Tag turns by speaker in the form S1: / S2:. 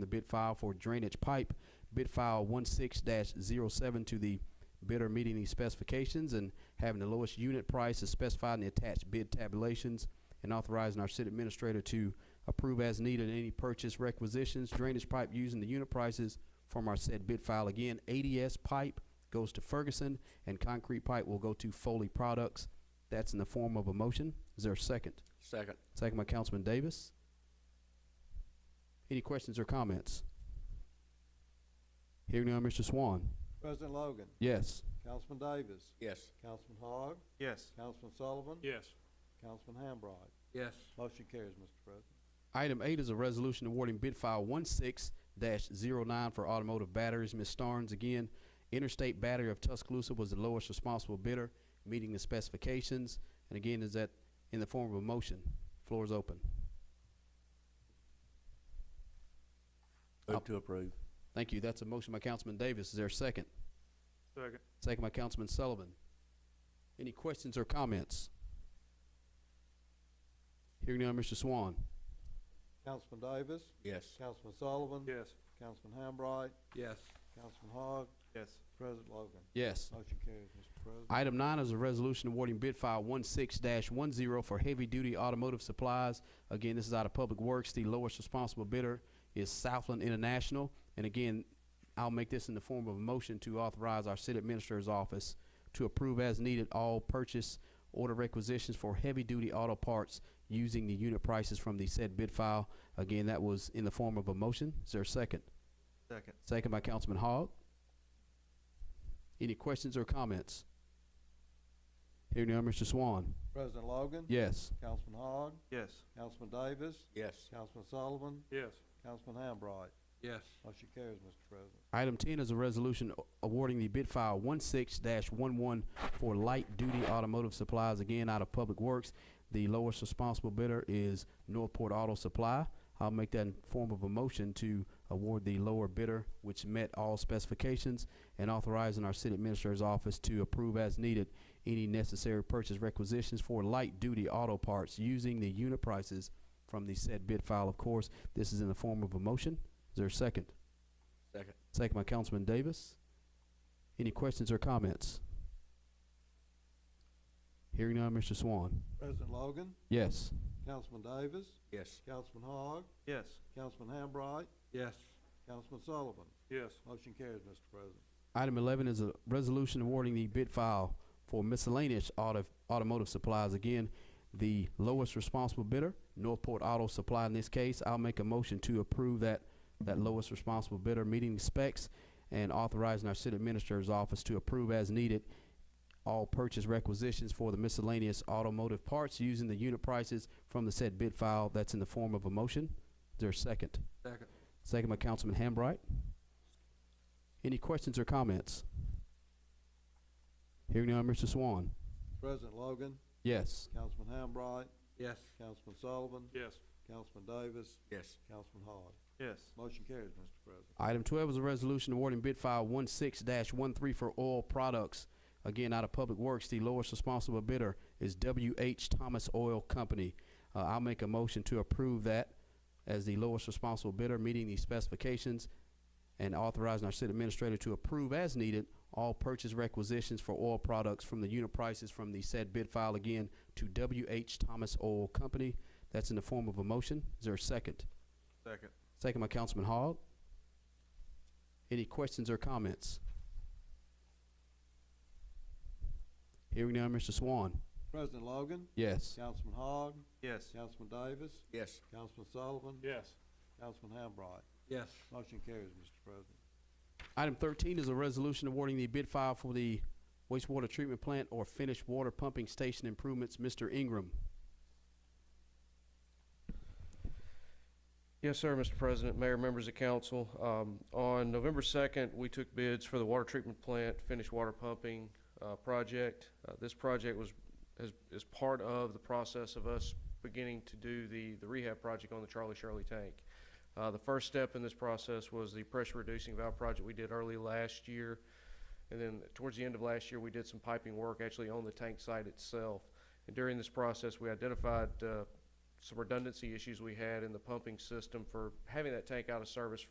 S1: the bid file for drainage pipe, bid file one six dash zero seven to the bidder meeting these specifications and having the lowest unit price as specified in the attached bid tabulations and authorizing our city administrator to approve as needed any purchase requisitions, drainage pipe using the unit prices from our said bid file. Again, ADS pipe goes to Ferguson and concrete pipe will go to Foley Products. That's in the form of a motion. Is there a second?
S2: Second.
S1: Second by Councilman Davis. Any questions or comments? Hearing now, Mr. Swan.
S3: President Logan,
S1: Yes.
S3: Councilman Davis,
S2: Yes.
S3: Councilman Hogg,
S4: Yes.
S3: Councilman Sullivan,
S4: Yes.
S3: Councilman Hambright.
S2: Yes.
S3: Motion carries, Mr. President.
S1: Item eight is a resolution awarding bid file one six dash zero nine for automotive batteries. Ms. Starnes, again, Interstate Battery of Tuscaloosa was the lowest responsible bidder, meeting the specifications. And again, is that in the form of a motion? Floor is open.
S2: Move to approve.
S1: Thank you. That's a motion by Councilman Davis. Is there a second?
S4: Second.
S1: Second by Councilman Sullivan. Any questions or comments? Hearing none, Mr. Swan.
S3: Councilman Davis,
S2: Yes.
S3: Councilman Sullivan,
S4: Yes.
S3: Councilman Hambright,
S2: Yes.
S3: Councilman Hogg,
S4: Yes.
S3: President Logan.
S1: Yes.
S3: Motion carries, Mr. President.
S1: Item nine is a resolution awarding bid file one six dash one zero for heavy-duty automotive supplies. Again, this is out of Public Works. The lowest responsible bidder is Southland International. And again, I'll make this in the form of a motion to authorize our city administrator's office to approve as needed all purchase order requisitions for heavy-duty auto parts using the unit prices from the said bid file. Again, that was in the form of a motion. Is there a second?
S4: Second.
S1: Second by Councilman Hogg. Any questions or comments? Hearing none, Mr. Swan.
S3: President Logan.
S1: Yes.
S3: Councilman Hogg,
S4: Yes.
S3: Councilman Davis,
S2: Yes.
S3: Councilman Sullivan,
S4: Yes.
S3: Councilman Hambright.
S2: Yes.
S3: Motion carries, Mr. President.
S1: Item ten is a resolution a- awarding the bid file one six dash one one for light-duty automotive supplies, again, out of Public Works. The lowest responsible bidder is Northport Auto Supply. I'll make that in form of a motion to award the lower bidder, which met all specifications, and authorizing our city administrator's office to approve as needed any necessary purchase requisitions for light-duty auto parts using the unit prices from the said bid file, of course. This is in the form of a motion. Is there a second?
S2: Second.
S1: Second by Councilman Davis. Any questions or comments? Hearing none, Mr. Swan.
S3: President Logan,
S1: Yes.
S3: Councilman Davis,
S2: Yes.
S3: Councilman Hogg,
S4: Yes.
S3: Councilman Hambright,
S2: Yes.
S3: Councilman Sullivan.
S4: Yes.
S3: Motion carries, Mr. President.
S1: Item eleven is a resolution awarding the bid file for miscellaneous auto, automotive supplies. Again, the lowest responsible bidder, Northport Auto Supply in this case. I'll make a motion to approve that, that lowest responsible bidder meeting the specs and authorizing our city administrator's office to approve as needed all purchase requisitions for the miscellaneous automotive parts using the unit prices from the said bid file. That's in the form of a motion. Is there a second?
S2: Second.
S1: Second by Councilman Hambright. Any questions or comments? Hearing none, Mr. Swan.
S3: President Logan,
S1: Yes.
S3: Councilman Hambright,
S2: Yes.
S3: Councilman Sullivan,
S4: Yes.
S3: Councilman Davis,
S2: Yes.
S3: Councilman Hogg.
S4: Yes.
S3: Motion carries, Mr. President.
S1: Item twelve is a resolution awarding bid file one six one three for oil products. Again, out of Public Works, the lowest responsible bidder is W H Thomas Oil Company. Uh, I'll make a motion to approve that as the lowest responsible bidder, meeting the specifications and authorizing our city administrator to approve as needed all purchase requisitions for oil products from the unit prices from the said bid file again to W H Thomas Oil Company. That's in the form of a motion. Is there a second?
S4: Second.
S1: Second by Councilman Hogg. Any questions or comments? Hearing now, Mr. Swan.
S3: President Logan,
S1: Yes.
S3: Councilman Hogg,
S4: Yes.
S3: Councilman Davis,
S2: Yes.
S3: Councilman Sullivan,
S4: Yes.
S3: Councilman Hambright.
S2: Yes.
S3: Motion carries, Mr. President.
S1: Item thirteen is a resolution awarding the bid file for the wastewater treatment plant or finished water pumping station improvements. Mr. Ingram.
S5: Yes, sir, Mr. President, Mayor, members of council. Um, On November 2nd, we took bids for the water treatment plant, finished water pumping uh, project. Uh, This project was, is- is part of the process of us beginning to do the the rehab project on the Charlie Shirley tank. Uh, The first step in this process was the pressure reducing valve project we did early last year. And then towards the end of last year, we did some piping work actually on the tank site itself. And during this process, we identified uh, some redundancy issues we had in the pumping system for having that tank out of service